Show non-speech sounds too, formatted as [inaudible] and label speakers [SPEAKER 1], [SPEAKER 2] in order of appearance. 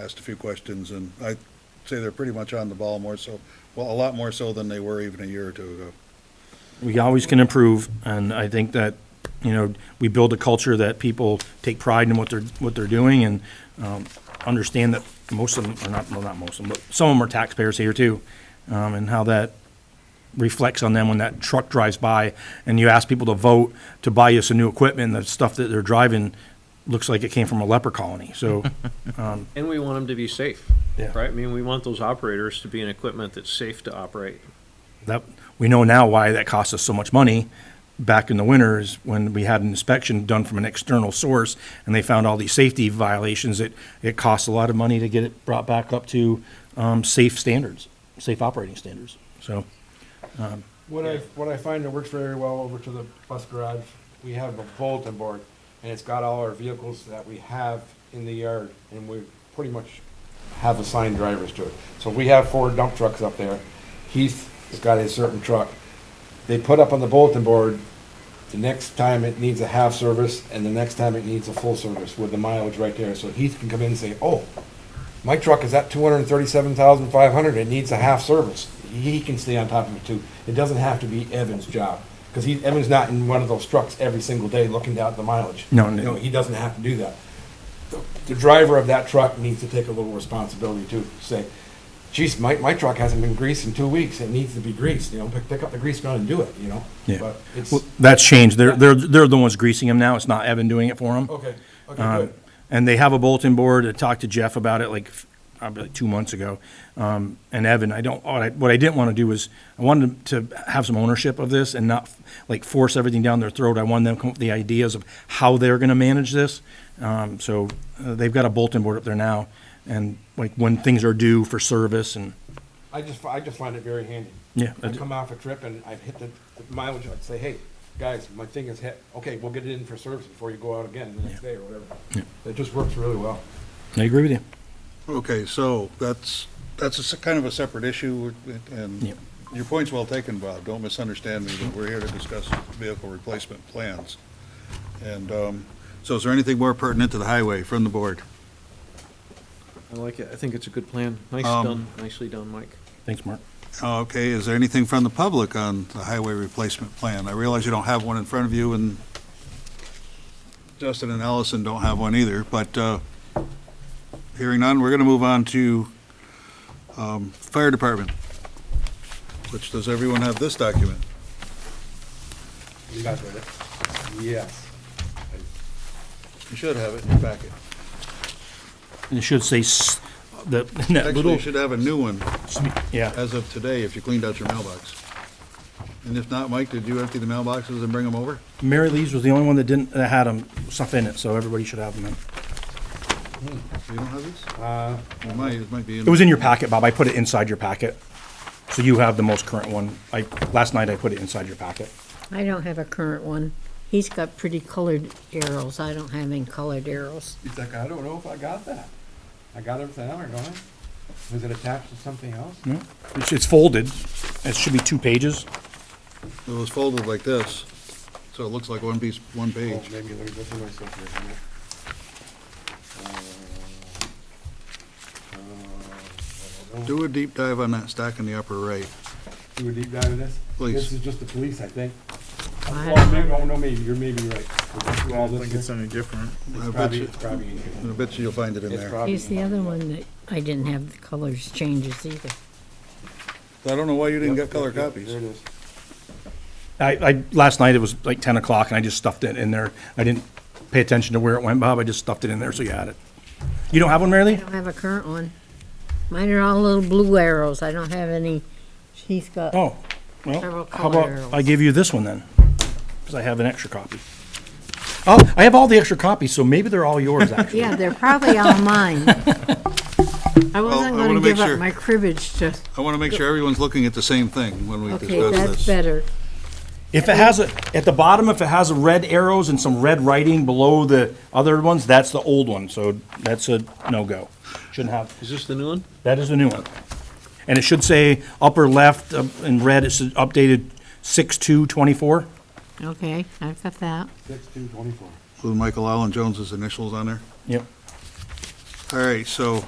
[SPEAKER 1] asked a few questions, and I'd say they're pretty much on the ball more so, well, a lot more so than they were even a year or two ago.
[SPEAKER 2] we always can improve, and I think that, you know, we build a culture that people take pride in what they're, what they're doing and um, understand that most of them, or not, well, not most of them, but some of them are taxpayers here too, um, and how that reflects on them when that truck drives by and you ask people to vote to buy you some new equipment, the stuff that they're driving looks like it came from a leper colony, so,
[SPEAKER 3] And we want them to be safe,
[SPEAKER 2] Yeah.
[SPEAKER 3] right? I mean, we want those operators to be in equipment that's safe to operate.
[SPEAKER 2] that, we know now why that cost us so much money back in the winter is when we had an inspection done from an external source and they found all these safety violations. It, it costs a lot of money to get it brought back up to, um, safe standards, safe operating standards. So,
[SPEAKER 4] What I, what I find that works very well over to the bus garage, we have a bulletin board, and it's got all our vehicles that we have in the yard, and we pretty much have assigned drivers to it. So we have four dump trucks up there, Heath has got a certain truck. They put up on the bulletin board, the next time it needs a half service, and the next time it needs a full service, with the mileage right there, so Heath can come in and say, oh, my truck is at two hundred and thirty-seven thousand five hundred, it needs a half service. He can stay on top of it too. It doesn't have to be Evan's job, because he, Evan's not in one of those trucks every single day looking down at the mileage.
[SPEAKER 2] No,
[SPEAKER 4] You
[SPEAKER 2] no.
[SPEAKER 4] know, he doesn't have to do that. The- The driver of that truck needs to take a little responsibility too, say, geez, my, my truck hasn't been greased in two weeks, it needs to be greased, you know, pick, pick up the grease gun and do it, you know?
[SPEAKER 2] yeah.
[SPEAKER 4] But it's,
[SPEAKER 2] Well, That's changed. They're, they're, they're the ones greasing them now. It's not Evan doing it for them.
[SPEAKER 4] okay, okay,
[SPEAKER 2] Um,
[SPEAKER 4] good.
[SPEAKER 2] And they have a bulletin board. I talked to Jeff about it like, f- probably like two months ago. Um, and Evan, I don't, what I, what I didn't want to do was, I wanted to have some ownership of this and not like force everything down their throat. I wanted them to come up with the ideas of how they're going to manage this. Um, so uh, they've got a bulletin board up there now and like when things are due for service and,
[SPEAKER 4] I just, I just find it very handy.
[SPEAKER 2] Yeah, I
[SPEAKER 4] I
[SPEAKER 2] do.
[SPEAKER 4] come off a trip and I've hit the the mileage, I'd say, hey, guys, my thing is hit, okay, we'll get it in for service before you go out again the next day or whatever. It just works really well.
[SPEAKER 2] I agree with you.
[SPEAKER 1] Okay, so that's, that's a s- kind of a separate issue, uh,
[SPEAKER 2] Yeah.
[SPEAKER 1] and your point's well taken, Bob. Don't misunderstand me, but we're here to discuss vehicle replacement plans. And, um, so is there anything more pertinent to the highway from the board?
[SPEAKER 3] I like it. I think it's a good plan. Nice
[SPEAKER 1] Um,
[SPEAKER 3] done, nicely done, Mike.
[SPEAKER 2] Thanks, Mark.
[SPEAKER 1] Oh, Okay, is there anything from the public on the highway replacement plan? I realize you don't have one in front of you, and Justin and Allison don't have one either, but uh, hearing none, we're going to move on to um, fire department, which, does everyone have this document?
[SPEAKER 4] You guys read it? Yes.
[SPEAKER 1] You should have it in your packet.
[SPEAKER 2] And it should say s- the, [laughs] that
[SPEAKER 1] Actually,
[SPEAKER 2] little,
[SPEAKER 1] you should have a new one
[SPEAKER 2] yeah.
[SPEAKER 1] as of today if you cleaned out your mailbox. And if not, Mike, did you empty the mailboxes and bring them over?
[SPEAKER 2] Mary Lee's was the only one that didn't, that had them, stuff in it, so everybody should have them in.
[SPEAKER 1] You don't have these?
[SPEAKER 4] Uh,
[SPEAKER 1] It might, it might be in.
[SPEAKER 2] It was in your packet, Bob. I put it inside your packet. So you have the most current one. I, last night I put it inside your packet.
[SPEAKER 5] I don't have a current one. He's got pretty colored arrows. I don't have any colored arrows.
[SPEAKER 4] he's like, I don't know if I got that. I got everything, I'm going, was it attached to something else?
[SPEAKER 2] It's, it's folded. It should be two pages.
[SPEAKER 1] It was folded like this, so it looks like one piece, one
[SPEAKER 4] Oh,
[SPEAKER 1] page.
[SPEAKER 4] maybe there's nothing else up here, isn't it? Uh, uh, I don't know.
[SPEAKER 1] Do a deep dive on that stack in the upper right.
[SPEAKER 4] Do a deep dive in this?
[SPEAKER 1] Please.
[SPEAKER 4] This is just the police, I think.
[SPEAKER 5] I
[SPEAKER 4] Well,
[SPEAKER 5] don't
[SPEAKER 4] maybe,
[SPEAKER 5] know.
[SPEAKER 4] oh, no, maybe, you're maybe right. I
[SPEAKER 6] I don't think it's any different.
[SPEAKER 1] I
[SPEAKER 4] It's
[SPEAKER 1] bet
[SPEAKER 4] probably,
[SPEAKER 1] you,
[SPEAKER 4] it's probably in
[SPEAKER 1] I
[SPEAKER 4] here.
[SPEAKER 1] bet you you'll find it in
[SPEAKER 4] It's
[SPEAKER 1] there. I
[SPEAKER 4] probably
[SPEAKER 5] Here's
[SPEAKER 4] in
[SPEAKER 5] the
[SPEAKER 4] here.
[SPEAKER 5] other one that I didn't have the colors changes either.
[SPEAKER 1] don't know why you didn't get color
[SPEAKER 4] Yep, yep, yep,
[SPEAKER 1] copies.
[SPEAKER 4] There it is.
[SPEAKER 2] I, I, last night it was like ten o'clock and I just stuffed it in there. I didn't pay attention to where it went, Bob. I just stuffed it in there, so you had it. You don't have one, Mary
[SPEAKER 5] I
[SPEAKER 2] Lee?
[SPEAKER 5] don't have a current one. Mine are all little blue arrows. I don't have any. He's got,
[SPEAKER 2] Oh,
[SPEAKER 5] Several
[SPEAKER 2] well, how
[SPEAKER 5] color
[SPEAKER 2] about I
[SPEAKER 5] arrows.
[SPEAKER 2] give you this one then? Cause I have an extra copy. Oh, I have all the extra copies, so maybe they're all yours, actually.
[SPEAKER 5] yeah, they're probably all mine. I wasn't
[SPEAKER 1] I wanna
[SPEAKER 5] gonna
[SPEAKER 1] make
[SPEAKER 5] give
[SPEAKER 1] sure.
[SPEAKER 5] up my cribbage to,
[SPEAKER 1] I want to make sure everyone's looking at the same thing when we
[SPEAKER 5] okay,
[SPEAKER 1] discuss
[SPEAKER 5] that's
[SPEAKER 1] this.
[SPEAKER 5] better.
[SPEAKER 2] If it has a, at the bottom, if it has a red arrows and some red writing below the other ones, that's the old one, so that's a no-go. Shouldn't have,
[SPEAKER 3] Is this the new one?
[SPEAKER 2] that is the new one. And it should say upper left uh, in red, it's updated six-two twenty-four.
[SPEAKER 5] Okay, I've got that.
[SPEAKER 4] Six, two, twenty-four.
[SPEAKER 1] With Michael Allen Jones's initials on there.
[SPEAKER 2] Yep.
[SPEAKER 1] All right, so